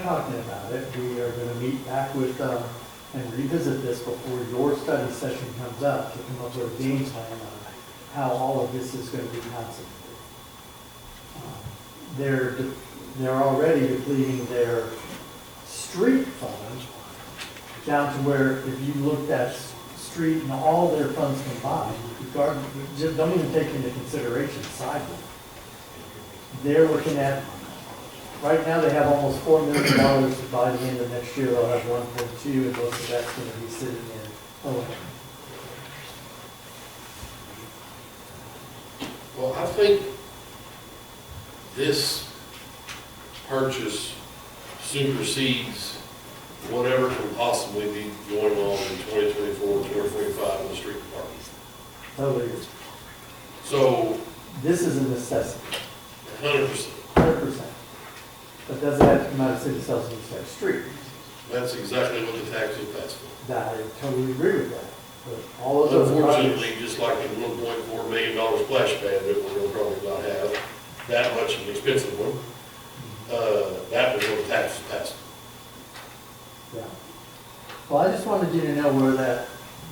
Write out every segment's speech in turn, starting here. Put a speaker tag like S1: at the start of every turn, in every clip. S1: talking about it, we are gonna meet back with, uh, and revisit this before your study session comes up to come up with a game plan on how all of this is gonna be concentrated. Um, They're, de- they're already depleting their street fund down to where if you looked at s- street and all their funds combined, regardless, just don't even take into consideration sidewalk. They're looking at Right now, they have almost four million dollars by the end of next year, they'll have one point two, and most of that's gonna be sitting in O and M.
S2: Well, I think this purchase supersedes whatever can possibly be going on in 2024, 2025 in the street department.
S1: Totally.
S2: So,
S1: This is a necessity,
S2: 100%,
S1: hundred percent. But doesn't have to come out of city sales and tax street.
S2: that's exactly what the tax is passed for.
S1: That, I totally agree with that, but all of those.
S2: Unfortunately, just like the 1.4 million dollar splash pad that we're gonna probably not have, that much of an expensive one, uh, that was what the tax was passed. for.
S1: Yeah. Well, I just wanted you to know where that,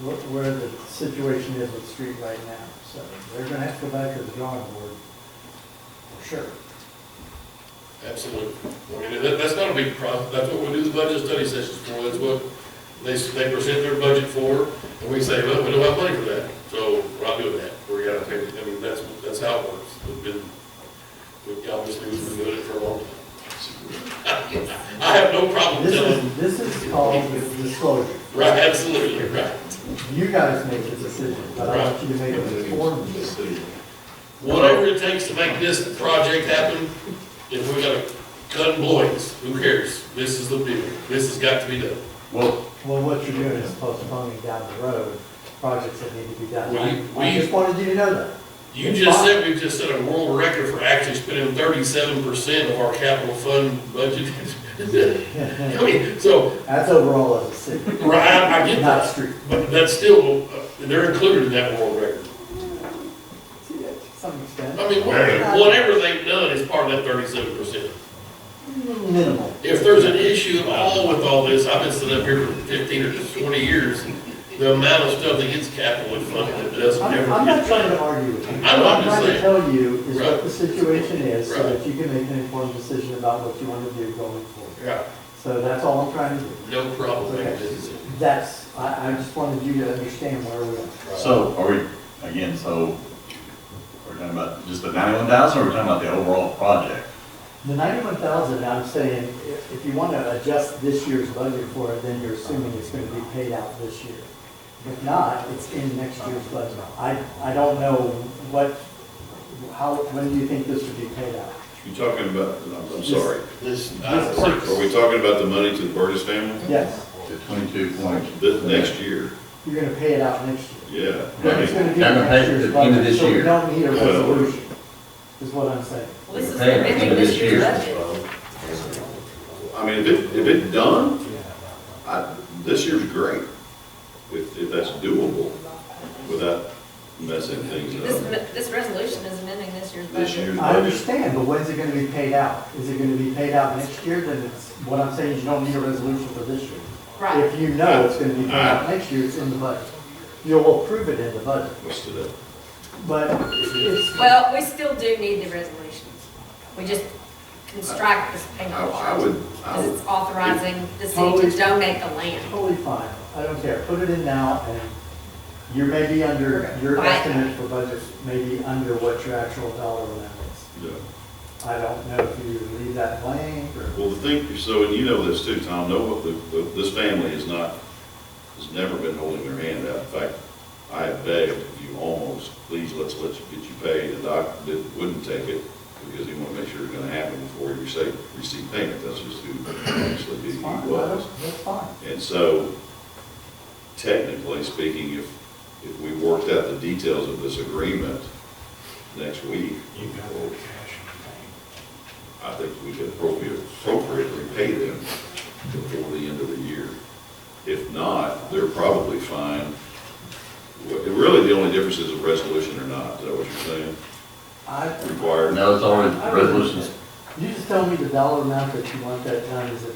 S1: where where the situation is with street right now, so they're gonna have to go back to the drawing board, for sure.
S2: Absolutely. I mean, that, that's not a big problem. That's what we do the budget study sessions for. That's what they, they present their budget for, and we say, well, we don't have money for that, so we're not doing that. We're gonna take, it. I mean, that's, that's how it works. We've been, we obviously, we've been doing it for a long time. I have no problem
S1: This
S2: telling,
S1: is, this is called disclosure.
S2: right, absolutely, right.
S1: You guys make the decision, but I want you to make an informed decision.
S2: Whatever it takes to make this project happen, if we gotta cut employees, who cares? This is the deal. This has got to be done.
S3: Well,
S1: Well, what you're doing is postponing down the road projects that need to be done. I-
S2: We-
S1: I
S2: we-
S1: just wanted you to know that.
S2: You just said, we just set a world record for actually spending thirty-seven percent of our capital fund budget. I mean, so,
S1: That's overall as a city,
S2: right, I I get
S1: not
S2: that,
S1: street.
S2: but that's still, uh, they're included in that world record.
S1: See, that to some extent,
S2: I mean, wha- whatever they've done is part of that thirty-seven percent.
S1: minimal.
S2: If there's an issue at all with all this, I've been sitting up here for fifteen or twenty years, the amount of stuff that gets capital funded that doesn't
S1: I'm,
S2: ever
S1: I'm not
S2: get
S1: trying to
S2: funded.
S1: argue with you.
S2: I'm
S1: What I'm
S2: not
S1: trying to
S2: saying.
S1: tell you is what
S2: Right.
S1: the situation is so
S2: Right.
S1: that you can make an informed decision about what you want to do going forward.
S2: Yeah,
S1: So that's all I'm trying to do.
S2: no problem,
S1: Okay.
S2: This is it.
S1: That's, I, I just wanted you to understand where we are.
S3: so are we, again, so we're talking about just the ninety-one thousand, or we're talking about the overall project?
S1: The ninety-one thousand, I'm saying, if if you want to adjust this year's budget for it, then you're assuming it's going to be paid out this year. If not, it's in next year's budget. I, I don't know what, how, when do you think this would be paid out?
S4: You talking about, I'm, I'm sorry,
S2: This, uh,
S1: This
S4: are we talking about the money to the Burgess family?
S1: Yes,
S3: The twenty-two point.
S4: This, next year,
S1: you're going to pay it out next year.
S4: yeah.
S1: But it's going to be in
S3: They're gonna pay
S1: next
S3: it at
S1: year's
S3: the end of
S1: budget,
S3: this
S1: so we
S3: year.
S1: don't need a
S4: Well-
S1: resolution, is what I'm saying.
S5: Well, this is
S3: Pay it at the end
S5: amending
S3: of
S5: this
S3: this
S5: year's
S3: year.
S5: budget.
S4: I mean, if it, if it's done, I, this year's great, if, if that's doable without messing
S5: This,
S4: things up.
S5: am- this resolution is amending this year's
S4: This
S5: budget.
S4: year's
S1: I
S4: budget,
S1: understand, but when's it going to be paid out? Is it going to be paid out next year? Then it's, what I'm saying is you don't need a resolution for this year.
S5: Right.
S1: If you know it's gonna be paid out next year, it's in the budget. You'll approve it in the budget,
S4: what's today?
S1: but it's,
S5: Well, we still do need the resolutions. We just can strike this
S4: I,
S5: payment
S4: I
S5: part.
S4: would, I
S5: Because
S4: would,
S5: it's authorizing the city to donate the land.
S1: totally fine, I don't care, put it in now, and you may be under, your
S5: Right.
S1: estimate for budget may be under what your actual dollar amount is.
S4: yeah.
S1: I don't know if you leave that blank, or,
S4: Well, the thing, so, and you know this too, Tom, no, what the, the- this family is not, has never been holding their hand out. In fact, I have begged you almost, please, let's let you, get you paid. The doc didn't, wouldn't take it because he wanted to make sure it's gonna happen before you say, receive payment. That's just who actually
S1: it's
S4: he
S1: fine, that's
S4: was.
S1: that's fine.
S4: And so technically speaking, if, if we worked out the details of this agreement next week, I think we could appropriate- appropriately pay them before the end of the year. If not, they're probably fine. What- Really, the only difference is a resolution or not, is that what you're saying?
S1: I,
S4: Required?
S3: No, it's already, resolution's
S1: you just tell me the dollar amount that you want that done, is it